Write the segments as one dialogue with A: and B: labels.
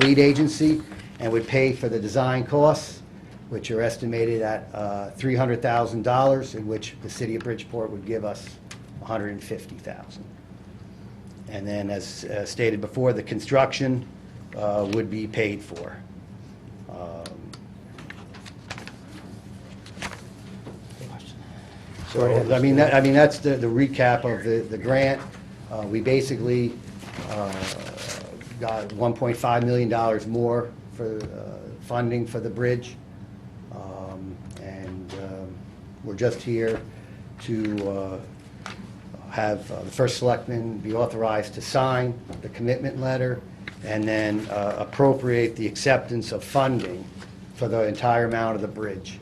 A: lead agency and would pay for the design costs, which are estimated at uh, $300,000, in which the city of Bridgeport would give us $150,000. And then, as uh, stated before, the construction uh, would be paid for. Um, So, I mean, that, I mean, that's the the recap of the, the grant. Uh, we basically, uh, got one point five million dollars more for, uh, funding for the bridge. Um, and, um, we're just here to, uh, have uh, the first selectman be authorized to sign the commitment letter and then uh, appropriate the acceptance of funding for the entire amount of the bridge,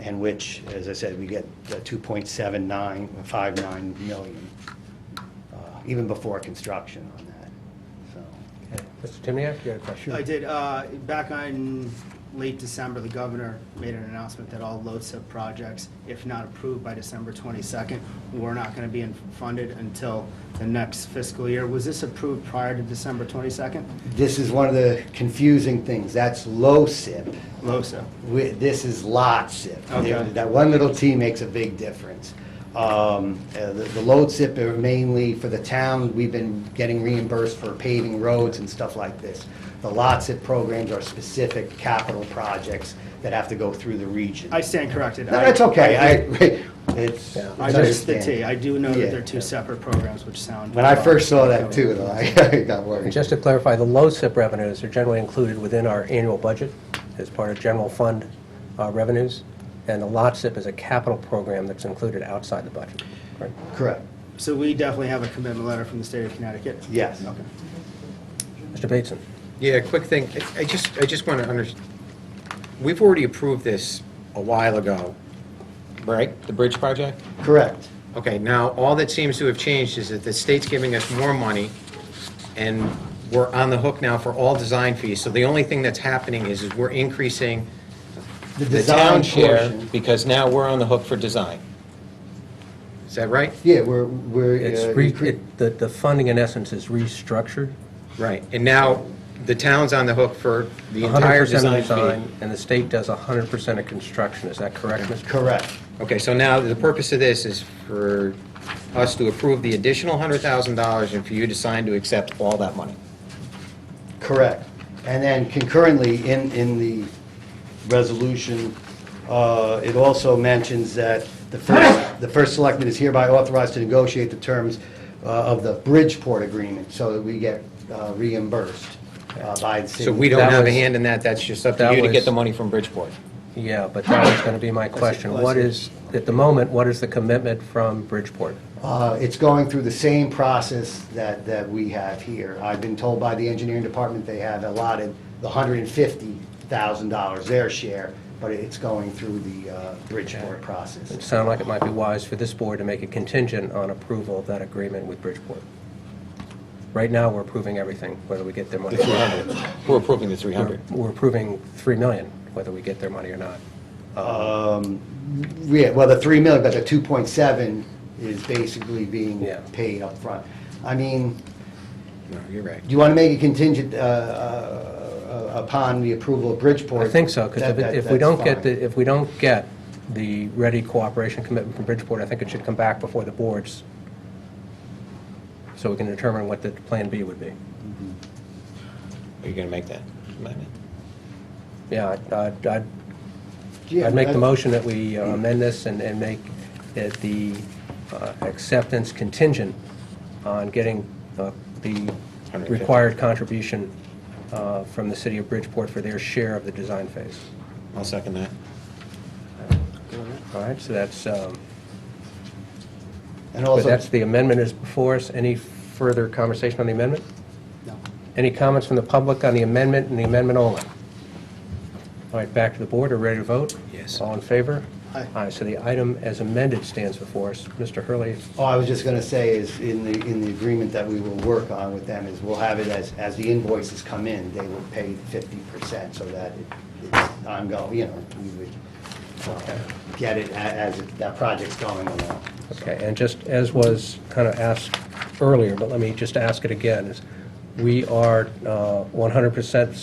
A: and which, as I said, we get uh, 2.7959 million, uh, even before construction on that, so.
B: Mr. Timniak, you had a question?
C: I did, uh, back on late December, the governor made an announcement that all LoSiP projects, if not approved by December 22nd, were not going to be in- funded until the next fiscal year. Was this approved prior to December 22nd?
A: This is one of the confusing things, that's low SIP.
C: LoSiP.
A: We- This is lot SIP.
C: Okay.
A: That one little T makes a big difference. Um, uh, The the load SIP are mainly for the town, we've been getting reimbursed for paving roads and stuff like this. The lot SIP programs are specific capital projects that have to go through the region.
C: I stand corrected.
A: No, that's okay, I, it's.
B: Yeah.
C: I missed the T.
A: understandable.
C: I do know
A: Yeah.
C: that they're two separate programs, which sound.
A: When I first saw that too, though, I I got worried.
B: Just to clarify, the low SIP revenues are generally included within our annual budget as part of general fund uh, revenues, and the lot SIP is a capital program that's included outside the budget. correct?
A: Correct,
C: So we definitely have a commitment letter from the state of Connecticut?
A: yes.
C: Okay.
B: Mr. Bateson?
D: Yeah, quick thing, I- I just, I just want to under, we've already approved this a while ago, right? The bridge project?
A: Correct,
D: Okay, now, all that seems to have changed is that the state's giving us more money, and we're on the hook now for all design fees, so the only thing that's happening is, is we're increasing
A: the
D: the town
A: design
D: share,
A: portion.
D: because now we're on the hook for design. Is that right?
A: Yeah, we're, we're.
B: It's,
A: uh,
B: re-
A: incre-
B: it- the the funding in essence is restructured.
D: Right, and now, the town's on the hook for the
B: 100%
D: entire
B: of
D: design fee.
B: design, And the state does 100% of construction, is that correct, Mr.?
A: Correct.
D: Okay, so now, the purpose of this is for us to approve the additional $100,000 and for you to sign to accept all that money.
A: Correct. And then concurrently, in, in the resolution, uh, it also mentions that the first, the first selectman is hereby authorized to negotiate the terms uh, of the Bridgeport agreement, so that we get uh, reimbursed uh, by the city.
D: So we
B: That
D: don't have a
B: was-
D: hand in that, that's just up to
B: that
D: you to
B: was-
D: get the money from Bridgeport.
B: Yeah, but that was going to be my question. What is, at the moment, what is the commitment from Bridgeport?
A: Uh, It's going through the same process that, that we have here. I've been told by the engineering department they have allotted the $150,000, their share, but it's going through the uh, Bridgeport process.
B: It sounded like it might be wise for this board to make a contingent on approval of that agreement with Bridgeport. Right now, we're approving everything, whether we get their money.
D: The 300. We're approving the 300.
B: We're approving 3 million, whether we get their money or not.
A: Yeah, well, the three million, but the two point seven is basically being
B: Yeah.
A: paid up front. I mean,
D: No, you're right.
A: do you want to make it contingent uh, uh, uh, upon the approval of Bridgeport?
B: I think so, because
A: That- that-
B: if we don't get,
A: that's fine.
B: the if we don't get the ready cooperation commitment from Bridgeport, I think it should come back before the boards, so we can determine what the plan B would be.
D: Are you going to make that amendment?
B: Yeah, I'd- I'd I'd
A: Yeah,
B: I'd make the
A: that-
B: motion that we uh, amend this and, and make it the uh, acceptance contingent on getting uh, the
D: 150.
B: required contribution uh, from the city of Bridgeport for their share of the design phase.
D: I'll second that.
B: All right, so that's, um,
A: And
B: but
A: also,
B: that's the amendment is before us. Any further conversation on the amendment?
C: No.
B: Any comments from the public on the amendment and the amendment only? All right, back to the board, are we ready to vote?
D: Yes.
B: All in favor?
C: Aye.
B: Aye, so the item as amended stands before us. Mr. Hurley,
A: all I was just going to say is, in the, in the agreement that we will work on with them, is we'll have it as, as the invoices come in, they will pay fifty percent, so that it- it's ongoing, you know, we would uh, get it a- as it- that project's going along.
B: Okay, and just as was kind of asked earlier, but let me just ask it again, is we are uh, 100%